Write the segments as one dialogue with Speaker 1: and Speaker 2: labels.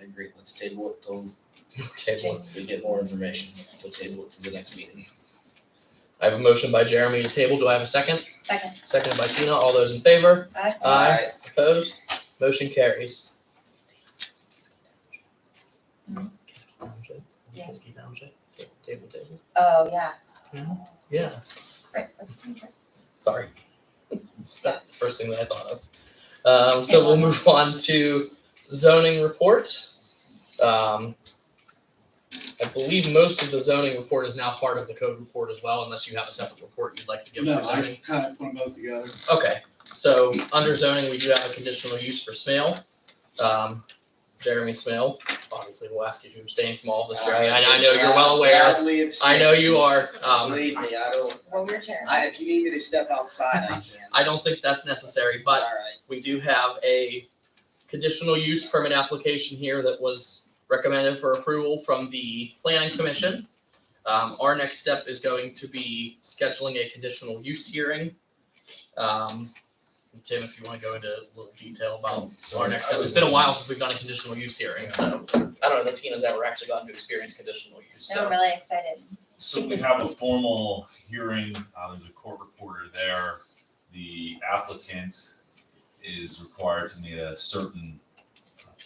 Speaker 1: I agree. Let's table it till
Speaker 2: Table. it.
Speaker 1: we get more information. We'll table it to the next meeting.
Speaker 2: I have a motion by Jeremy to table. Do I have a second?
Speaker 3: Second.
Speaker 2: Seconded by Tina. All those in favor?
Speaker 3: Aye.
Speaker 2: Aye. Opposed? Motion carries.
Speaker 3: Mhm. Yeah.
Speaker 2: Yes. Table, table.
Speaker 3: Oh, yeah.
Speaker 2: Yeah,
Speaker 3: Right, that's pretty good.
Speaker 2: sorry. It's not the first thing that I thought of. Um, so we'll move on to zoning report. Um, I believe most of the zoning report is now part of the code report as well, unless you have a separate report you'd like to give
Speaker 4: No,
Speaker 2: for zoning.
Speaker 4: I kind of put them both together.
Speaker 2: Okay, so under zoning, we do have a conditional use for Smale. Um, Jeremy Smale, obviously we'll ask you to abstain from all of this, Jeremy, I I know you're well aware,
Speaker 1: Gladly
Speaker 2: I know you are, um,
Speaker 1: Believe me, I don't,
Speaker 3: Well, we're chair.
Speaker 1: I, if you need me to step outside, I can.
Speaker 2: I don't think that's necessary,
Speaker 1: All
Speaker 2: but
Speaker 1: right.
Speaker 2: we do have a conditional use permit application here that was recommended for approval from the planning commission. Um, our next step is going to be scheduling a conditional use hearing. Um, Tim, if you wanna go into a little detail about our next step, it's been a while since we've done a conditional use hearing, so I don't know that Tina's ever actually gotten to experience conditional use,
Speaker 3: No, I'm
Speaker 2: so.
Speaker 3: really excited.
Speaker 5: So we have a formal hearing, uh, there's a court reporter there. The applicant is required to meet a certain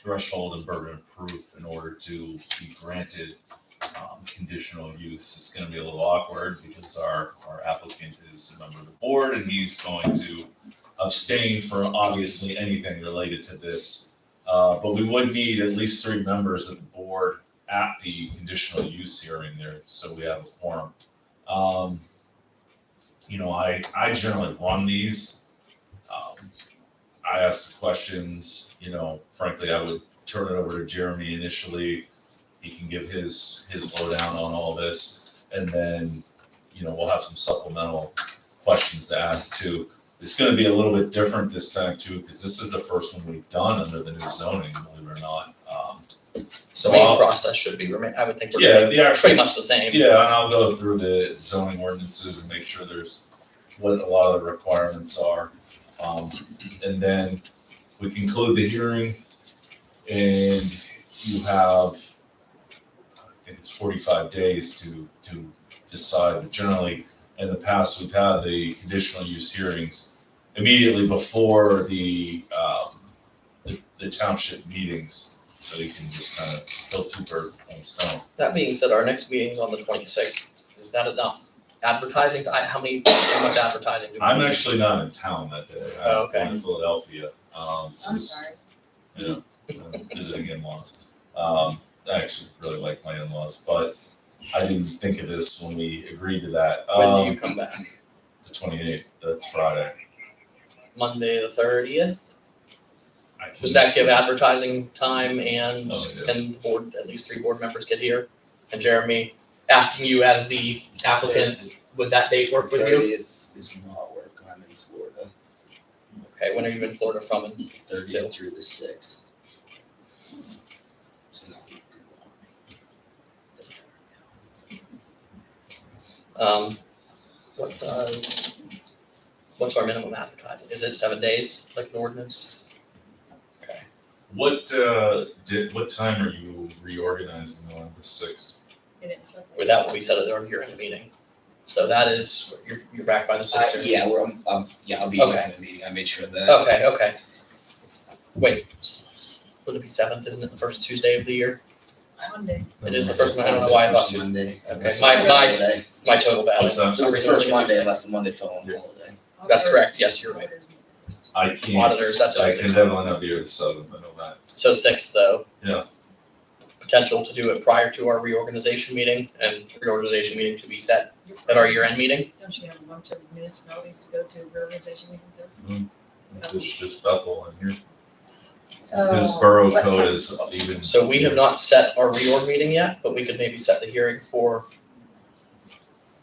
Speaker 5: threshold and burden of proof in order to be granted, um, conditional use. It's gonna be a little awkward because our, our applicant is a member of the board and he's going to abstain from obviously anything related to this. Uh, but we would need at least three members of the board at the conditional use hearing there, so we have a quorum. Um, you know, I, I generally won these. Um, I asked the questions, you know, frankly, I would turn it over to Jeremy initially. He can give his, his lowdown on all this, and then, you know, we'll have some supplemental questions to ask too. It's gonna be a little bit different this time too, because this is the first one we've done under the new zoning, believe it or not. Um,
Speaker 2: The
Speaker 5: So I'll-
Speaker 2: main process should be, remain- I would think
Speaker 5: yeah,
Speaker 2: we're
Speaker 5: the
Speaker 2: pretty
Speaker 5: actual,
Speaker 2: much the same.
Speaker 5: yeah, and I'll go through the zoning ordinances and make sure there's what a lot of the requirements are. Um, and then we conclude the hearing and you have, I think it's forty-five days to, to decide. But Generally, in the past, we've had the conditional use hearings immediately before the, um, the, the township meetings. So you can just kind of kill two birds with one stone.
Speaker 2: That being said, our next meeting's on the twenty-sixth. Is that enough advertising? I, how many, how much advertising do we?
Speaker 5: I'm
Speaker 2: need?
Speaker 5: actually not in town that day. I'm
Speaker 2: Oh, okay.
Speaker 5: going to Philadelphia. Um, so
Speaker 3: I'm
Speaker 5: this-
Speaker 3: sorry.
Speaker 5: Yeah, I'm visiting in-laws. Um, I actually really like my in-laws, but I didn't think of this when we agreed to that.
Speaker 2: When do you
Speaker 5: Um,
Speaker 2: come back?
Speaker 5: the 28th. That's Friday.
Speaker 2: Monday, the thirtieth?
Speaker 5: I can-
Speaker 2: Does that give advertising time and,
Speaker 5: Oh, yeah.
Speaker 2: and the board, at least three board members get here? And Jeremy, asking you as the applicant, would that date work with you?
Speaker 1: Thirtieth does not work. I'm in Florida,
Speaker 2: Okay, when are you in Florida from? And
Speaker 1: thirtieth through the sixth. So not working well.
Speaker 2: Um, what, uh, what's our minimum advertising? Is it seven days, like an ordinance? Okay.
Speaker 5: What uh, did? What time are you reorganizing on the sixth?
Speaker 2: Or that will be set at our year-end meeting. So that is, you're, you're back by the
Speaker 1: I-
Speaker 2: sixth or?
Speaker 1: yeah, we're, um, um, yeah, I'll be here
Speaker 2: Okay. Oh,
Speaker 1: for the meeting. I made sure of that.
Speaker 2: Okay, okay. Wait, s- s- would it be seventh, isn't it the first Tuesday of the year? It is the first one. I don't know why I thought
Speaker 1: First Monday.
Speaker 2: Okay,
Speaker 1: Unless
Speaker 2: my-
Speaker 1: it's a
Speaker 2: my-
Speaker 1: holiday.
Speaker 2: My total ballot.
Speaker 5: What's that?
Speaker 1: So it's the first Monday unless the Monday fell on
Speaker 5: Yeah.
Speaker 1: holiday.
Speaker 2: That's correct, yes, you're right.
Speaker 5: I can't.
Speaker 2: Auditors, that's what I
Speaker 5: I
Speaker 2: was
Speaker 5: can
Speaker 2: thinking.
Speaker 5: definitely not be here the seventh. I know that.
Speaker 2: So sixth, though.
Speaker 5: Yeah.
Speaker 2: Potential to do it prior to our reorganization meeting and reorganization meeting to be set at our year-end meeting.
Speaker 6: Don't you have a bunch of municipalities to go to reorganization meetings in?
Speaker 5: It's just Bethel in here.
Speaker 3: So.
Speaker 5: His borough
Speaker 3: Oh, what
Speaker 5: code
Speaker 3: time?
Speaker 5: is even.
Speaker 2: So we have not set our reorg meeting yet, but we could maybe set the hearing for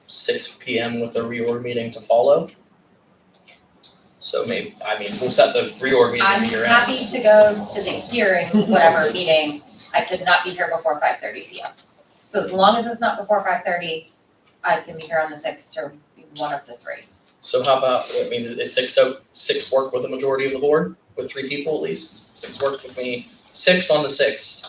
Speaker 2: six P M with the reorg meeting to follow. So maybe, I mean, we'll set the reorg meeting
Speaker 3: I'm
Speaker 2: at year-end.
Speaker 3: happy to go to the hearing, whatever meeting, I could not be here before five thirty P M. So as long as it's not before five thirty, I can be here on the sixth or one of the three.
Speaker 2: So how about, I mean, is six, so six work with the majority of the board, with three people at least? Six works with me, six on the sixth.